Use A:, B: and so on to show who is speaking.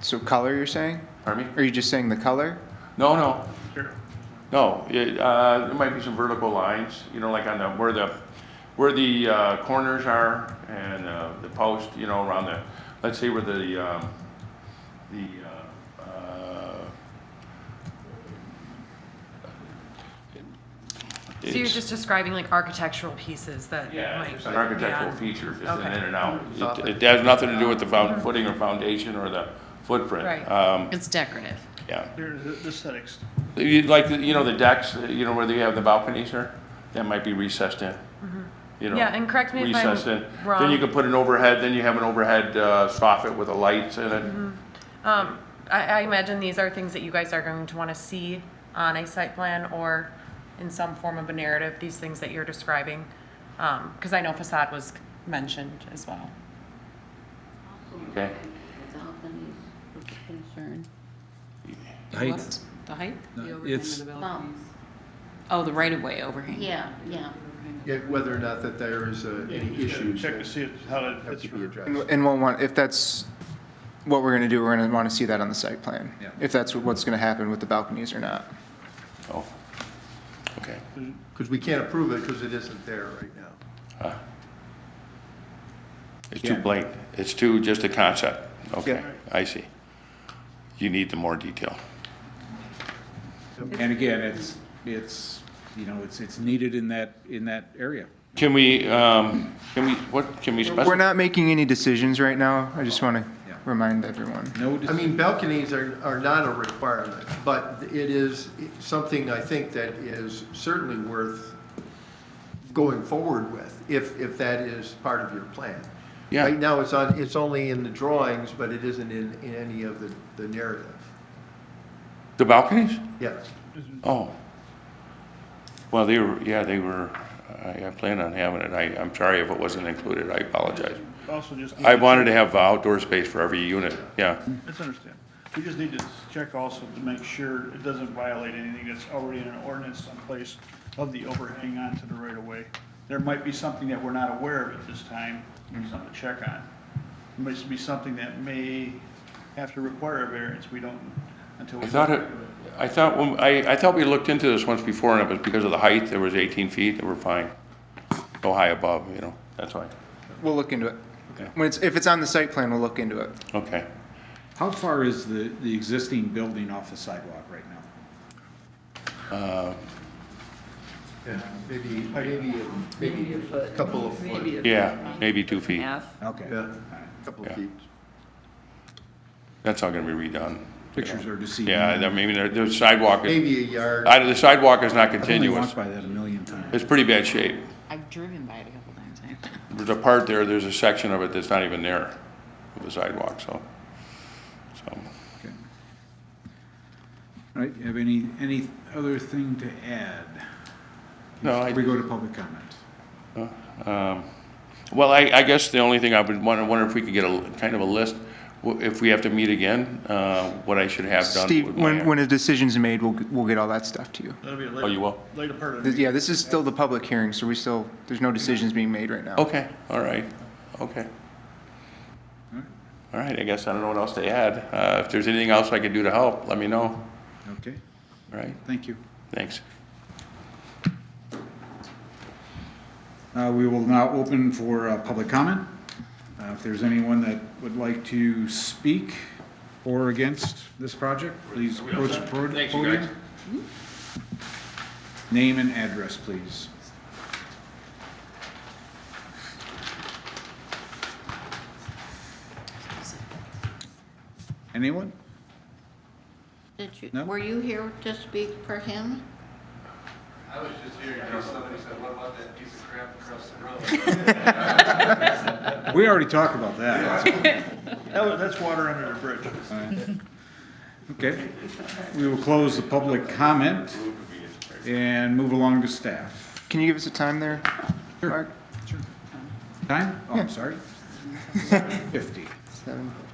A: So color, you're saying?
B: Pardon me?
A: Are you just saying the color?
B: No, no. No, it, uh, there might be some vertical lines, you know, like on the, where the, where the, uh, corners are and, uh, the post, you know, around the, let's say where the, um, the, uh, uh.
C: So you're
B: it's-
C: just describing like architectural pieces that
B: Yeah,
C: might.
B: it's an architectural feature, just an
C: Okay.
B: in and out. It, it has nothing to do with the found, footing or foundation or the footprint.
C: Right.
B: Um,
D: It's decorative.
B: yeah.
E: There's the aesthetics.
B: You- Like, you know, the decks, you know, where they have the balconies there, that might be recessed in. You know,
C: Mm-hmm. Yeah, and correct me if I'm
B: recessed in. Then
C: wrong.
B: you can put an overhead, then you have an overhead uh, soffit with the lights in it.
C: Um, I, I imagine these are things that you guys are going to want to see on a site plan or in some form of a narrative, these things that you're describing. Um, because I know facade was mentioned as well.
B: Okay.
D: Balconies, what's the concern?
F: Height,
G: The height?
F: it's,
G: Oh, the right-of-way overhang.
D: Yeah, yeah.
H: Yeah, whether or not that there is uh, any issues
E: Check to
H: that
E: see it- how that
H: have
E: fits.
H: to be
E: for-
H: addressed.
A: And and we'll want, if that's what we're gonna do, we're gonna wanna see that on the site plan.
F: Yeah.
A: If that's what's gonna happen with the balconies or not.
B: Oh, okay.
H: Because we can't approve it because it isn't there right now.
B: It's too blank. It's too, just a concept. Okay,
A: Yeah.
B: I see. You need the more detail.
F: and again, it's, it's, you know, it's, it's needed in that, in that area.
B: Can we, um, can we, what, can we specify?
A: We're not making any decisions right now. I just wanna
F: Yeah.
A: remind everyone.
F: No,
H: I
F: dis-
H: mean, balconies are, are not a requirement, but it is something I think that is certainly worth going forward with, if, if that is part of your plan.
B: Yeah.
H: Right now, it's on, it's only in the drawings, but it isn't in, in any of the, the narrative.
B: The balconies?
H: Yes.
B: Oh. Well, they were, yeah, they were, I, I plan on having it. I, I'm sorry if it wasn't included. I apologize.
E: Also just. need
B: I
E: to-
B: wanted to have outdoor space for every unit, yeah.
E: That's understandable. We just need to check also to make sure it doesn't violate anything that's already in an ordinance someplace of the overhang onto the right of way. There might be something that we're not aware of at this time,
B: Mm-hmm.
E: something to check on. Might be something that may have to require a variance, we don't, until we.
B: I thought it, I thought, when- I, I thought we looked into this once before, and it was because of the height, there was 18 feet, and we're fine. Go high above, you know, that's why,
A: We'll look into it.
B: Okay.
A: When it's, if it's on the site plan, we'll look into it.
B: okay.
F: how far is the, the existing building off the sidewalk right now?
H: Yeah, maybe, maybe, maybe a couple of foot,
B: Yeah, maybe two feet.
F: Okay,
H: yeah, couple of
B: Yeah.
H: feet.
B: That's all gonna be redone.
F: pictures are deceiving.
B: Yeah, I mean, the- the sidewalk, is-
H: Maybe a yard.
B: I- the sidewalk is not
F: I've only
B: continuous.
F: walked by that a million times.
B: It's pretty bad shape.
D: I've driven by it a couple times.
B: There's a part there, there's a section of it that's not even there, of the sidewalk, so, so.
F: Okay. All right, you have any, any other thing to add?
B: No, I-
F: We go to public comment.
B: Um, Well, I, I guess the only thing I would wonder, wonder if we could get a, kind of a list, wh- if we have to meet again, uh, what I should have done.
A: Steve,
B: with my
A: when,
B: act-
A: when a decision's made, we'll, we'll get all that stuff to you.
E: That'll be a
B: Oh, you
E: later,
B: will?
E: later part of the
A: Th-
E: meeting.
A: Yeah, this is still the public hearing, so we still, there's no decisions being made right now.
B: Okay, all right, okay. All right, I guess I don't know what else to add. Uh, if there's anything else I could do to help, let me know, all
F: Okay,
B: right?
F: thank you.
B: Thanks.
F: Uh, We will now open for uh, public comment. Uh, If there's anyone that would like to speak for or against this project, please approach the pro- podium. Mm-hmm. Name and address, please. Anyone?
D: Did you,
F: No.
D: were you here to speak for him?
I: I was just here because somebody said, what about that piece of crap across the road?
F: We already talked about that.
E: That was, that's water under the bridge.
F: Okay. We will close the public comment and move along to staff.
A: Can you give us a time there, Mark?
F: Time? Oh, I'm sorry. 50.
A: Seven.